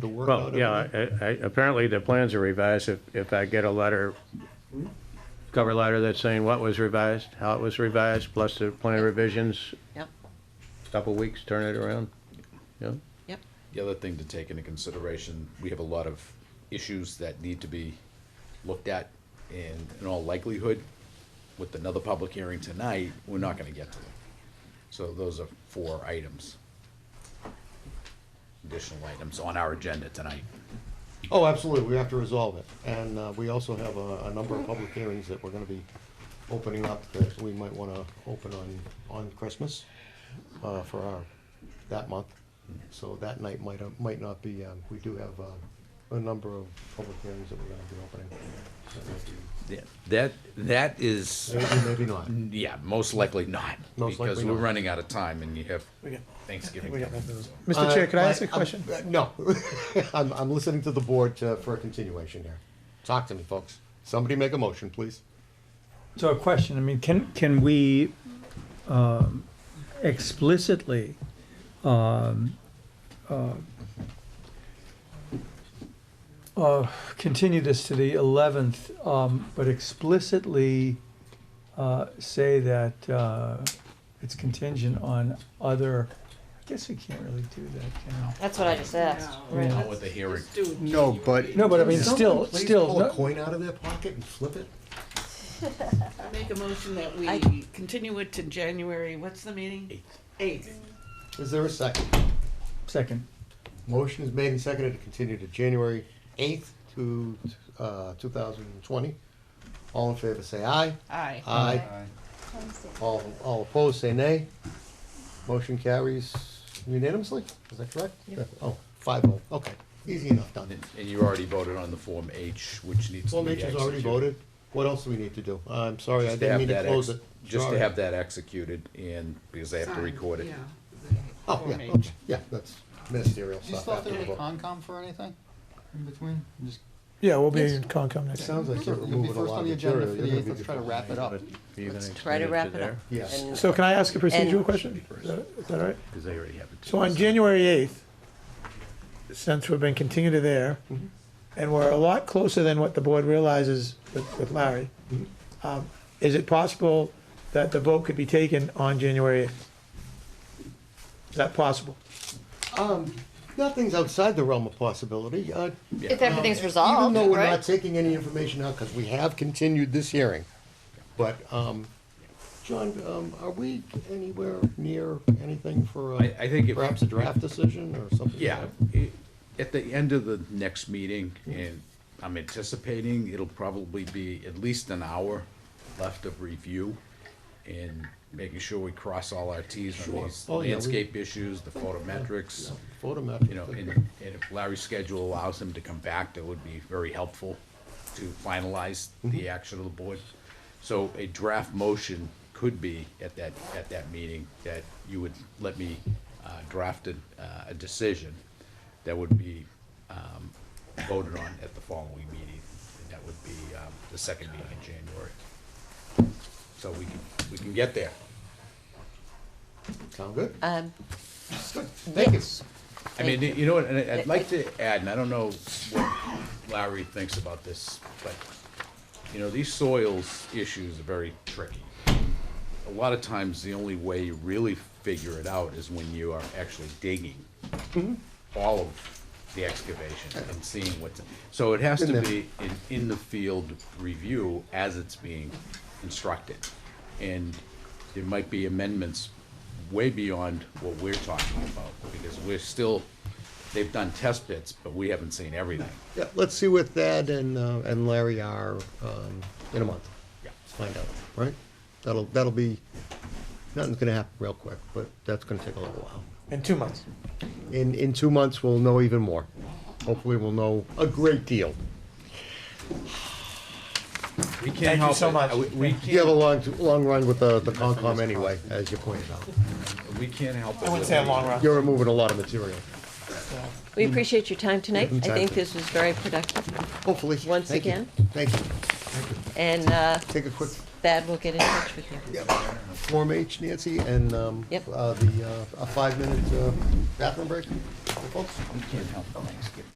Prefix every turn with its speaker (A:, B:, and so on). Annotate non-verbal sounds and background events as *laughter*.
A: to work out.
B: Well, yeah, I- I- apparently the plans are revised. If, if I get a letter, cover letter that's saying what was revised, how it was revised, plus the plan revisions,
C: Yep,
B: couple weeks, turn it around. Yeah,
C: yep.
D: The other thing to take into consideration, we have a lot of issues that need to be looked at, and in all likelihood, with another public hearing tonight, we're not gonna get to them. So those are four items. Additional items on our agenda tonight.
A: Oh, absolutely, we have to resolve it. And uh, we also have a, a number of public hearings that we're gonna be opening up that we might wanna open on, on Christmas uh, for our, that month. So that night might, might not be, um, we do have uh, a number of public hearings that we're gonna be opening. So might
D: Yeah, That, that is,
A: be- Maybe, maybe not.
D: yeah, most likely not,
A: Most likely
D: because we're
A: not.
D: running out of time and you have
E: got-
D: Thanksgiving.
E: we got
D: coming,
E: nothing.
D: so.
E: Mr. Chair,
A: Uh,
E: could I ask a
A: I'm-
E: question?
A: uh, No, *laughs* I'm, I'm listening to the board uh, for a continuation here. Talk to me, folks. Somebody make a motion, please.
E: So a question, I mean, can, can we um, explicitly um, uh, uh, continue this to the 11th, um, but explicitly uh, say that uh, it's contingent on other, I guess we can't really do that, can we?
F: That's what I just asked.
E: Yeah.
D: Not with the hearing.
A: No, but.
E: No, but I mean, still, still,
A: Pull a
E: no-
A: coin out of their pocket and flip it?
C: I make a motion that we
F: I-
C: continue it to January, what's the meeting? Eighth.
A: Is there a second?
E: second,
A: Motion is made and seconded to continue to January eighth to, uh, two thousand and twenty. All in favor, say aye.
C: Aye.
A: Aye. All, all opposed, say nay. Motion carries unanimously, is that correct? Yeah. Oh, five oh, okay, easy enough, done.
D: And and you already voted on the Form H, which needs to
A: Well,
D: be
A: Mitch has
D: executed.
A: already voted, what else do we need to do? I'm sorry, I
D: Just to
A: didn't
D: have
A: mean to
D: that
A: close
D: ex-
A: it.
D: Just to
A: Sorry.
D: have that executed and, because they have to record it.
A: Oh, yeah, okay. yeah, that's ministerial
G: Do you
A: stuff.
G: still have to
A: after
G: go
A: the vote.
G: to Concom for anything in between? Just-
E: yeah, we'll be in Concom next.
A: Sounds like you're
G: You'll be
A: removing a
G: first
A: lot
G: on
A: of
G: the agenda
A: material.
G: for
A: You're
G: the
A: gonna
G: eighth,
A: be
G: let's try to
A: different.
G: wrap it up.
F: Let's try to wrap it up.
A: Yes.
F: And-
E: So can I ask a procedural
F: And-
E: question? Is that- is that all right?
D: Because they already have it.
E: So on January 8th, since we've been continued to there,
D: Mm-hmm.
E: and we're a lot closer than what the board realizes with with Larry,
D: Mm-hmm.
E: um, is it possible that the vote could be taken on January 8th? Is that possible?
A: Um, nothing's outside the realm of possibility. Uh,
F: If everything's
A: Even
F: resolved,
A: though we're not
F: right?
A: taking any information out, because we have continued this hearing. But, um, John, um, are we anywhere near anything for, uh,
D: I, I think if.
A: perhaps a draft decision or something?
D: Yeah, i- at the end of the next meeting, and I'm anticipating it'll probably be at least an hour left of review and making sure we cross all our Ts on these
A: Oh, yeah, we-
D: landscape issues, the photometrics,
A: Photometric.
D: you know, and, and if Larry's schedule allows him to come back, that would be very helpful to finalize the action of the board. So a draft motion could be at that, at that meeting, that you would let me, uh, draft a, uh, a decision that would be, um, voted on at the following meeting, and that would be, um, the second meeting in January. So we can, we can get there.
A: Sound good?
F: Um,
A: Thank you.
F: yes.
D: I mean, you know what, and I- I'd like to add, and I don't know what Larry thinks about this, but, you know, these soils issues are very tricky. A lot of times, the only way you really figure it out is when you are actually digging all of the excavation and seeing what's, so it has
A: Been
D: to
A: there.
D: be an in-the-field review as it's being constructed. And there might be amendments way beyond what we're talking about, because we're still, they've done test bits, but we haven't seen everything.
A: Yeah, let's see what Thad and, uh, and Larry are, um, in a month.
D: Yeah.
A: Find out, right? That'll, that'll be, nothing's gonna happen real quick, but that's gonna take a little while.
E: In two months.
A: In, in two months, we'll know even more. Hopefully, we'll know a great deal.
D: We can't
E: Thank you
D: help
E: so
D: it.
E: much.
D: We- We
A: You have a long,
D: can't,
A: long run with the, the Concom anyway, as you pointed out.
D: we can't help it.
E: I wouldn't say a long run.
A: You're removing a lot of material,
F: We appreciate your time tonight. I think
A: Exactly.
F: this was very productive.
A: hopefully.
F: Once
A: Thank you.
F: again.
A: Thank you.
F: And uh,
A: Take a quick
F: Thad will get in touch with you.
A: Form H, Nancy, and, um,
F: Yep.
A: uh, the, uh, a five-minute, uh,
H: bathroom break, folks?
A: You can't help the Thanksgiving.